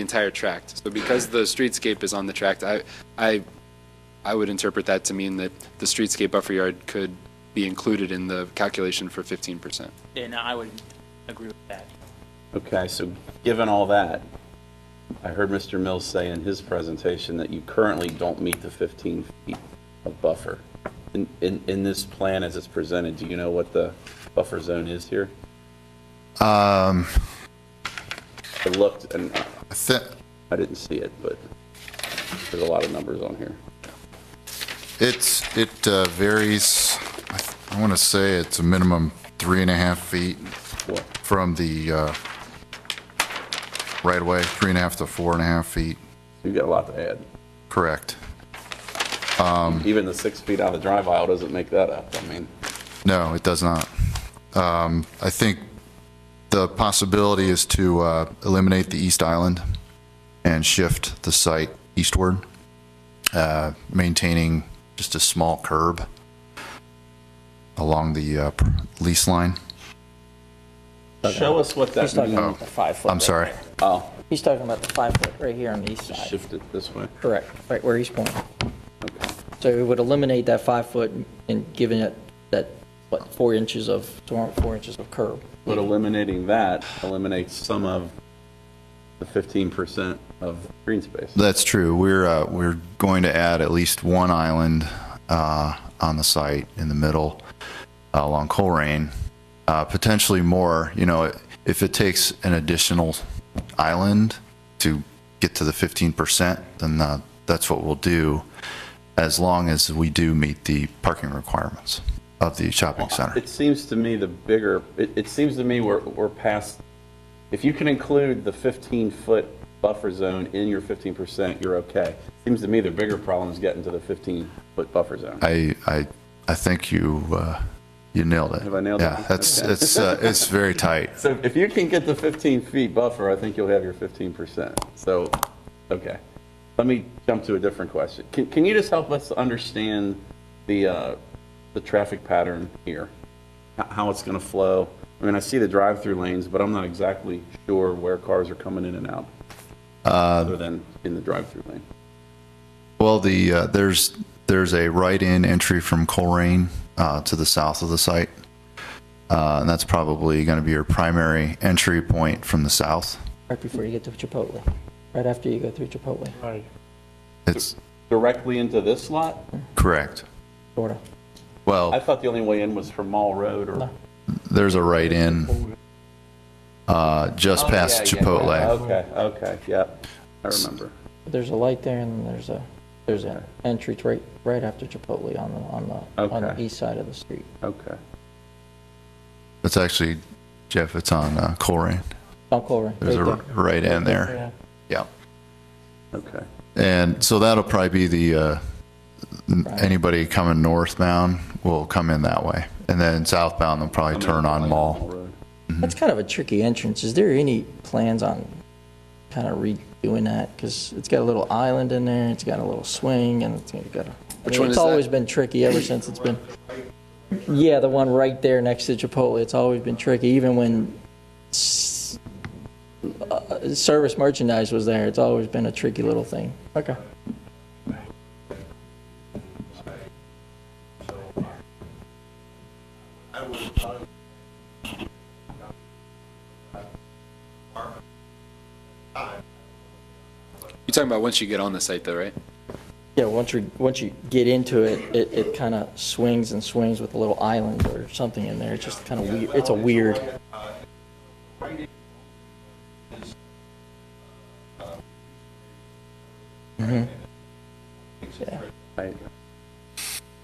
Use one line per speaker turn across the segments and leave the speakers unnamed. the entire tract. So because the streetscape is on the tract, I, I, I would interpret that to mean that the streetscape buffer yard could be included in the calculation for 15%.
And I would agree with that.
Okay, so given all that, I heard Mr. Mills say in his presentation that you currently don't meet the 15 feet of buffer. In, in, in this plan as it's presented, do you know what the buffer zone is here?
Um,
I looked and
I thi-
I didn't see it, but there's a lot of numbers on here.
It's, it uh, varies, I th- I want to say it's a minimum three and a half feet
What?
from the uh, right of way, three and a half to four and a half feet,
You've got a lot to add.
correct? Mm-hmm.
Even the six feet out of the drive aisle doesn't make that up. I mean,
No, it does not. Um, I think the possibility is to uh, eliminate the east island and shift the site eastward, uh, maintaining just a small curb along the uh, pr- lease line.
show us what that
He's talking
means.
about the five foot.
Oh, I'm
right
sorry.
there.
Oh,
He's talking about the five foot right here on the east side.
shift it this way.
Correct, right where he's pointing.
Okay.
So it would eliminate that five foot and giving it that, what, four inches of, four inches of curb.
But eliminating that eliminates some of the fifteen percent of green space.
That's true. We're uh, we're going to add at least one island uh, on the site in the middle uh, along Colerain, uh, potentially more. You know, if it takes an additional island to get to the 15%, then uh, that's what we'll do, as long as we do meet the parking requirements of the shopping center.
It seems to me the bigger, it, it seems to me we're, we're past, if you can include the fifteen-foot buffer zone in your fifteen percent, you're okay. Seems to me the bigger problem is getting to the fifteen-foot buffer zone.
I I I think you uh, you nailed it.
Have I nailed it?
yeah, that's
Okay.
it's uh, it's very tight.
So if you can get the fifteen feet buffer, I think you'll have your fifteen percent. So, okay. Let me jump to a different question. Can, can you just help us understand the, uh, the traffic pattern here? H- How it's gonna flow? I mean, I see the drive-through lanes, but I'm not exactly sure where cars are coming in and out.
Uh,
Other than in the drive-through lane.
Well, the uh, there's there's a right-in entry from Colerain uh, to the south of the site, uh, and that's probably going to be your primary entry point from the south.
Right before you get to Chipotle, right after you go through Chipotle,
It's
Directly into this lot?
correct.
sort of.
I
Well,
thought the only way in was from Mall Road or.
there's a right-in uh, just
Oh,
past
yeah, yeah,
Chipotle.
yeah. Okay, okay, yep. I remember.
There's a light there and there's a, there's an entry to right, right after Chipotle on the, on the, on the
Okay.
east side of the street.
Okay.
It's actually Jeff. It's on uh, Colerain.
Don't go over.
There's a
right
r-
there.
right-in there.
Yeah.
Yeah.
Okay.
And so that'll probably be the, uh, n- anybody coming northbound will come in that way. And then southbound, they'll probably turn on Mall.
Road.
That's kind of a tricky entrance. Is there any plans on kind of redoing that? Because it's got a little island in there, it's got a little swing, and it's got a. I mean,
one
It's
is that?
always been tricky ever since it's been. Yeah, the one right there next to Chipotle. It's always been tricky, even when s- uh, service merchandise was there. It's always been a tricky little thing. Okay.
You're talking about once you get on the site though, right?
Yeah, once you, once you get into it, it, it kind of swings and swings with a little island or something in there. It's just kind of weird. It's a weird.
Right.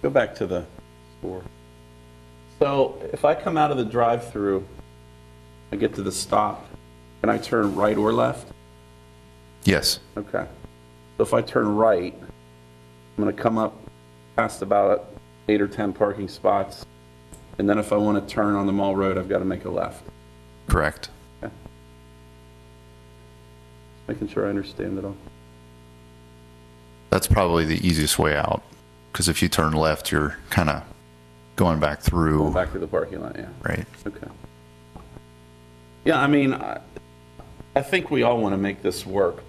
Go back to the store. So if I come out of the drive-through, I get to the stop, can I turn right or left?
Yes.
Okay. So if I turn right, I'm going to come up past about eight or 10 parking spots, and then if I want to turn on the Mall Road, I've got to make a left.
Correct.
Making sure I understand it all.
That's probably the easiest way out. Because if you turn left, you're kind of going back
Going
through,
back to the parking lot, yeah.
right?
Okay. Yeah, I mean, I, I think we all want to make this work,